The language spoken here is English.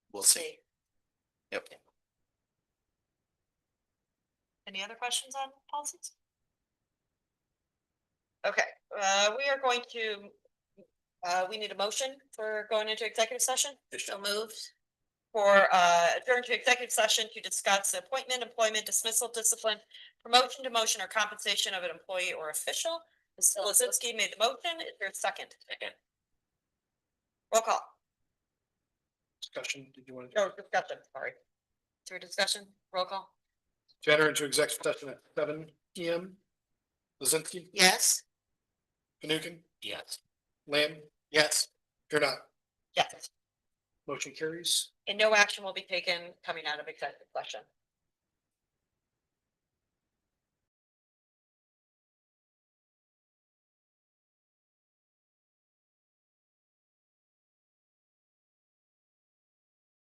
we'll see. Yep. Any other questions on policies? Okay, uh, we are going to, uh, we need a motion for going into executive session So moved. for, uh, adjourn to executive session to discuss the appointment, employment dismissal, discipline, promotion, demotion, or compensation of an employee or official. Ms. Lizinski made the motion. Is there a second? Second. Roll call. Discussion, did you want to? No discussion, sorry. Through discussion, roll call. To enter into executive session at seven P M. Lizinsky, Yes. Fanukin, Yes. Lamb? Yes. You're not. Yes. Motion carries. And no action will be taken coming out of executive session.